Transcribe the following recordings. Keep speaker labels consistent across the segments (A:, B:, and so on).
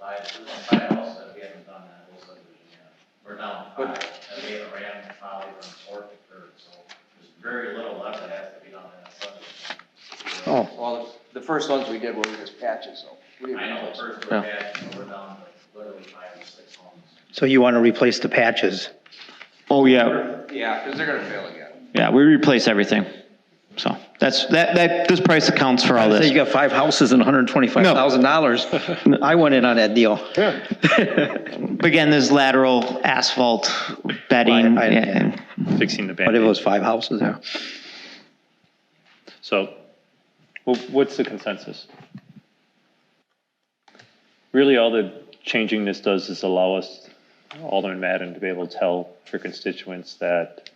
A: five, five houses, we haven't done that whole subdivision yet. We're down five, and we haven't ran Polly from fourth to third, so there's very little left that has to be done in that subdivision.
B: Oh.
C: Well, the first ones we did were just patches, so. we didn't
A: I know,
C: replace them.
A: first we're bad, but we're down to literally five or six homes.
D: So you want to replace the patches?
B: Oh, yeah,
C: Yeah, because they're gonna fail again.
B: yeah, we replace everything. So that's, that, that, this price accounts for all
D: So you
B: this.
D: got five houses and $125,000. I went in on that deal.
B: But again, there's lateral asphalt bedding
D: I- I-
B: and
E: fixing the
D: But if it
E: band
D: was five houses, yeah.
E: So wh- what's the consensus? Really, all the changing this does is allow us, Alderman Madden, to be able to tell her constituents that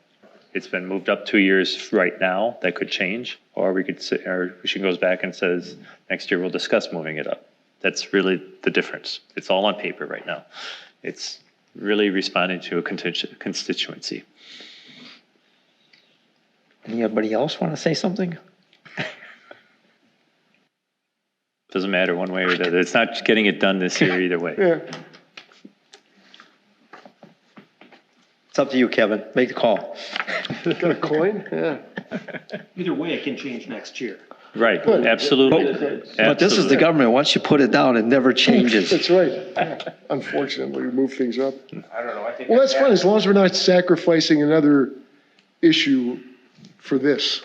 E: it's been moved up two years right now, that could change, or we could sit, or she goes back and says, next year we'll discuss moving it up. That's really the difference. It's all on paper right now. It's really responding to a constitu- constituency.
D: Anybody else want to say something?
E: Doesn't matter one way or the other. It's not getting it done this year either way.
D: It's up to you, Kevin. Make the call.
F: Either way, it can change next year.
E: Right, absolutely.
D: But this is the
E: Absolutely.
D: government. Once you put it down, it never changes.
G: That's right. Unfortunately, we move things up.
C: I don't know, I think.
G: Well, that's fine, as long as we're not sacrificing another issue for this.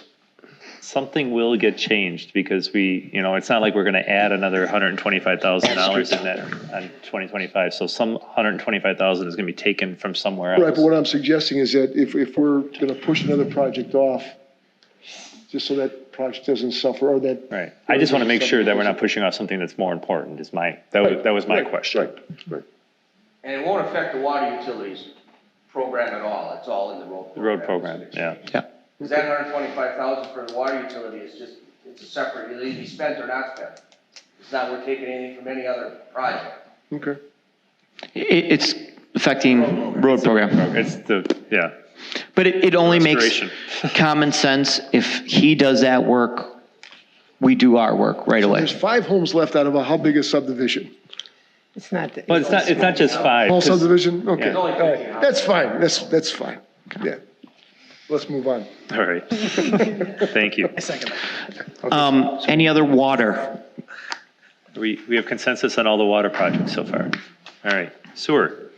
E: Something will get changed because we, you know, it's not like we're gonna add another hundred and twenty-five thousand dollars in that on twenty twenty-five. So some hundred and twenty-five thousand is gonna be taken from somewhere
G: Right, but
E: else.
G: what I'm suggesting is that if, if we're going to push another project off, just so that project doesn't suffer, or that.
E: Right. I just wanna make sure that we're not pushing off something that's more important is my, that was, that was my
G: Right,
E: question.
G: Right, right.
C: And it won't affect the water utilities program at all, it's all in the road.
E: The road program, yeah.
C: Because that hundred twenty-five thousand for the water utility is just, it's a separate, it'll either be spent or not spent. It's not, we're taking anything from any other project.
G: Okay.
B: it, it's affecting road program.
E: It's the, yeah.
B: But it, it only makes
E: Restoration.
B: common sense if he does that work, we do our work right away.
G: There's five homes left out of a, how big a subdivision?
H: It's not. that-
E: But it's not, it's not just five.
G: Small
E: 'cause-
G: subdivision? Okay.
E: Yeah.
C: Only
G: All
C: fifteen
G: right. That's fine, that's, that's fine. Yeah. Let's move on.
E: All right. Thank you.
B: Um, any other water?
E: We, we have consensus on all the water projects so far. All right, sewer.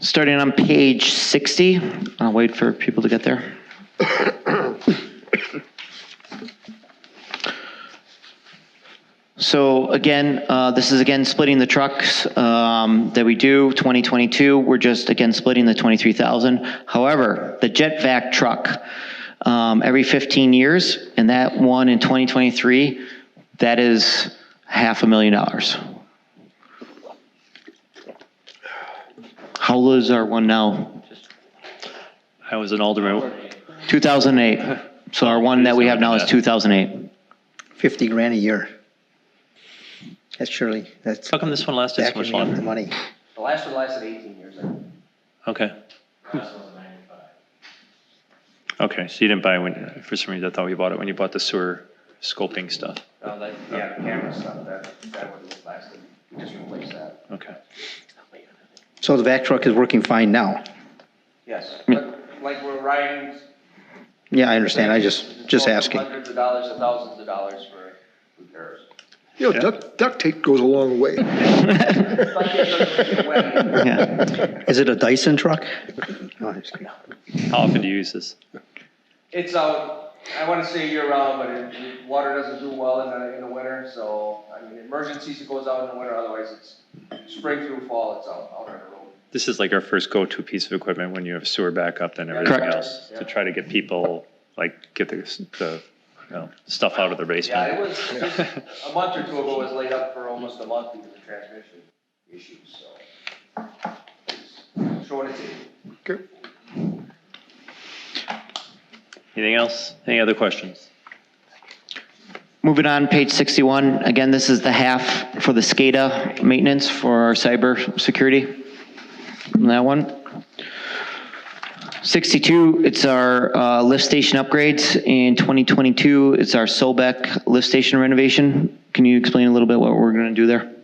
B: Starting on page 60, I'll wait for people to get there. So again, uh, this is again splitting the trucks um, that we do, 2022, we're just again splitting the 23,000. However, the jet vac truck, um, every 15 years, and that one in 2023, that is half a million dollars. How low is our one now?
E: I was an alderman.
B: 2008. So our one that we have now is 2008.
D: 50 grand a year. That's surely, that's
E: How come this one lasted so much
D: backing up the
E: longer?
D: money.
C: The last one lasted eighteen years, I think.
E: Okay,
A: Last one's ninety-five.
E: okay, so you didn't buy when, for some reason, I thought you bought it when you bought the sewer scoping stuff.
C: Uh, like, yeah, camera stuff, that, that one was lasted, we just replaced that.
E: Okay.
D: So the back truck is working fine now.
C: Yes, but like we're riding.
D: Yeah, I understand. I just, just asking.
C: Hundreds of dollars, and thousands of dollars for repairs.
G: You know, duct, duct tape goes a long way.
C: But it doesn't get wet.
B: Yeah.
D: Is it a Dyson truck? No, I'm just kidding.
E: How often do you use this?
C: It's out, I wanna say year round, but it, it- water doesn't do well in the, in the winter, so, I mean, emergencies it goes out in the winter, otherwise it's spring through fall, it's out, out on the road.
E: This is like our first go-to piece of equipment when you have sewer backup and everything
B: Correct.
E: else, to try to get people, like, get the, the, you know, stuff out of their
C: Yeah, it
E: basement.
C: was, just a month or two ago, it was laid up for almost a month because of transmission issues, so. it's Showing its age.
G: Okay.
E: Anything else? Any other questions?
B: Moving on, page 61. Again, this is the half for the SCADA maintenance for our cybersecurity. That one. 62, it's our uh, lift station upgrades. In 2022, it's our Solbeck lift station renovation. Can you explain a little bit what we're going to do there?